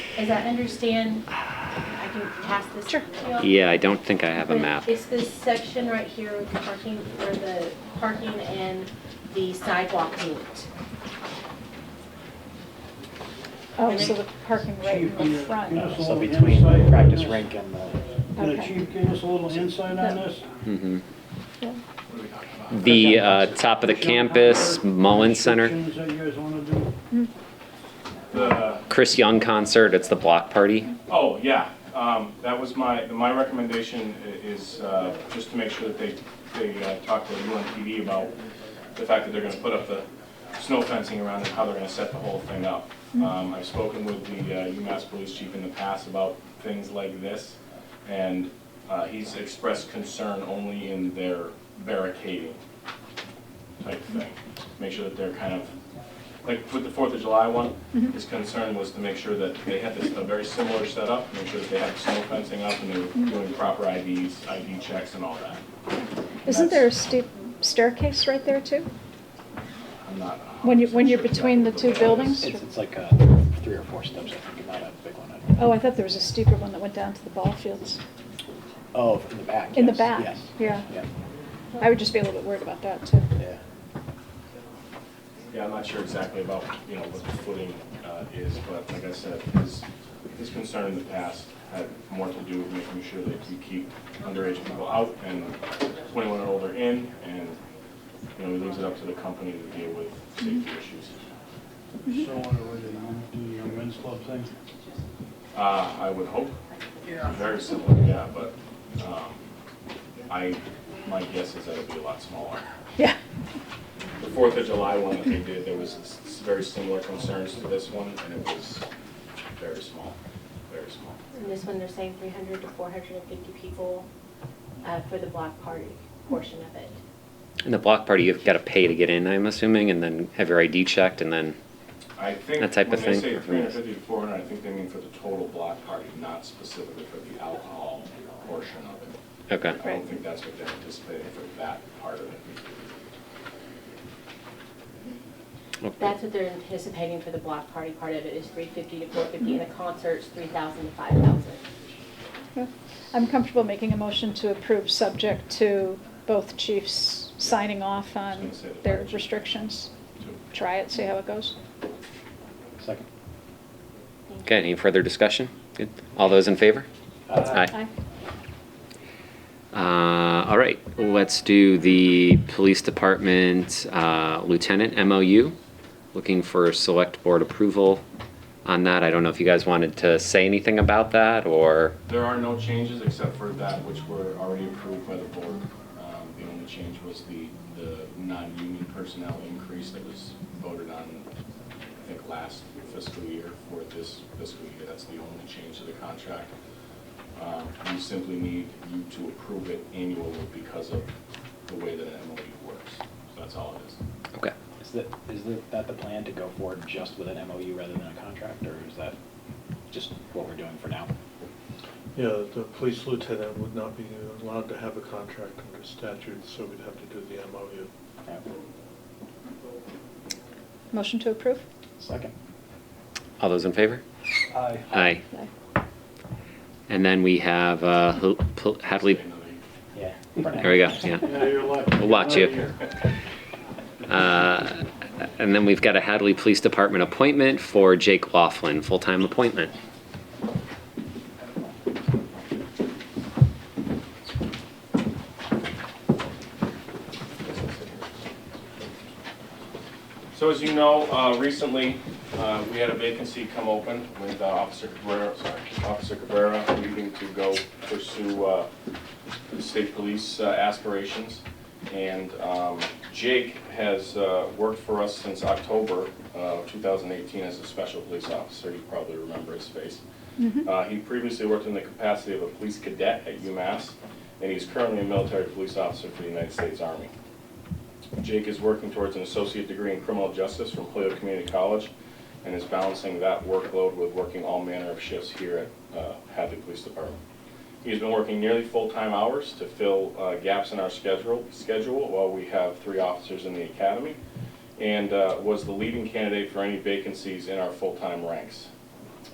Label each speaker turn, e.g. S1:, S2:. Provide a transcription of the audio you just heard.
S1: as I understand, I can pass this. Sure.
S2: Yeah, I don't think I have a map.
S1: It's this section right here with the parking, where the parking and the sidewalk meet.
S3: Oh, so the parking right in the front.
S4: So between the practice rink and the,
S3: Okay.
S5: Can the chief give us a little insight on this?
S2: Mhm. The uh, top of the campus, Mullen Center,
S5: Restrictions that you guys wanna do?
S6: The,
S2: Chris Young concert, it's the block party.
S6: oh, yeah, um, that was my, my recommendation i- is, uh, just to make sure that they, they uh, talk to UNPD about the fact that they're gonna put up the snow fencing around and how they're gonna set the whole thing up. Um, I've spoken with the uh, UMass Police Chief in the past about things like this, and, uh, he's expressed concern only in their barricading type thing. Make sure that they're kind of like with the Fourth of July one,
S3: Mm-hmm.
S6: his concern was to make sure that they had this, a very similar setup, make sure that they had snow fencing up and they
S3: Mm-hmm.
S6: were doing proper IDs, ID checks and all that.
S3: Isn't there a steep staircase right there too?
S6: I'm not.
S3: When you- when you're between the two buildings?
S6: It's-
S3: Sure.
S4: it's, it's like uh three or four steps, I think, not a big one. I-
S3: Oh, I thought there was a steeper one that went down to the ball fields.
S4: Oh, in the back,
S3: In the
S4: yes,
S3: back,
S4: yes.
S3: yeah.
S4: Yeah,
S3: I would just be a little bit worried about that too.
S4: yeah.
S6: Yeah, I'm not sure exactly about, you know, what the footing uh, is, but like I said, his, his concern in the past had more to do with making sure that we keep underage people out and 21 and older in, and, you know, he leaves it up to the company to deal with safety issues.
S5: So on the way to the young men's club thing?
S6: Uh, I would hope. Very similar, yeah, but, um, I, my guess is that it'll be a lot smaller.
S3: Yeah.
S6: The Fourth of July one that they did, there was s- s- very similar concerns to this one, and it was very small, very small.
S1: And this one, they're saying three hundred to four hundred and fifty people, uh, for the block party portion of it.
S2: And the block party, you've got to pay to get in, I'm assuming, and then have your ID checked, and then,
S6: I think,
S2: That type
S6: when
S2: of
S6: they
S2: thing.
S6: say three hundred fifty to four hundred, I think they mean for the total block party, not specifically for the alcohol portion of it.
S2: okay.
S6: I don't think that's what they're anticipating for that part of it.
S2: Okay.
S1: That's what they're anticipating for the block party part of it, is three fifty to four fifty, and the concert's three thousand to five thousand.
S3: Yeah. I'm comfortable making a motion to approve, subject to both chiefs signing off on their restrictions.
S6: too.
S3: Try it, see how it goes.
S4: Second.
S2: Okay, any further discussion? Good. All those in favor?
S4: Uh,
S2: Aye. Uh, all right, let's do the police department uh, lieutenant MOU. Looking for select board approval on that. I don't know if you guys wanted to say anything about that or,
S6: There are no changes except for that which were already approved by the board. Um, The only change was the, the non-union personnel increase that was voted on, I think, last fiscal year for this fiscal year. That's the only change to the contract. Um, We simply need you to approve it annually because of the way that an MOU works. So that's all it is.
S2: okay.
S4: Is that, is that- that the plan to go forward just with an MOU rather than a contract, or is that just what we're doing for now?
S7: Yeah, the police lieutenant would not be allowed to have a contract under statute, so we'd have to do the MOU.
S4: Yeah.
S3: Motion to approve?
S4: Second.
S2: All those in favor?
S5: Aye.
S2: Aye.
S3: Aye.
S2: And then we have uh, Hul- Pul- Hadley,
S6: Another-
S4: Yeah. for now.
S2: there we go, yeah.
S5: Yeah, you're lucky.
S2: We'll watch you.
S5: You're lucky.
S2: Uh, And then we've got a Hadley Police Department appointment for Jake Laughlin, full-time appointment.
S6: So as you know, uh, recently, uh, we had a vacancy come open with uh, Officer Cabrera, sorry, Officer Cabrera leaving to go pursue uh, state police uh, aspirations. And um, Jake has uh, worked for us since October of 2018 as a special police officer. You probably remember his face. Uh, He previously worked in the capacity of a police cadet at UMass, and he's currently a military police officer for the United States Army. Jake is working towards an associate degree in criminal justice from Toledo Community College and is balancing that workload with working all manner of shifts here at uh, Hadley Police Department. He's been working nearly full-time hours to fill uh, gaps in our schedule, schedule while we have three officers in the academy, and uh, was the leading candidate for any vacancies in our full-time ranks.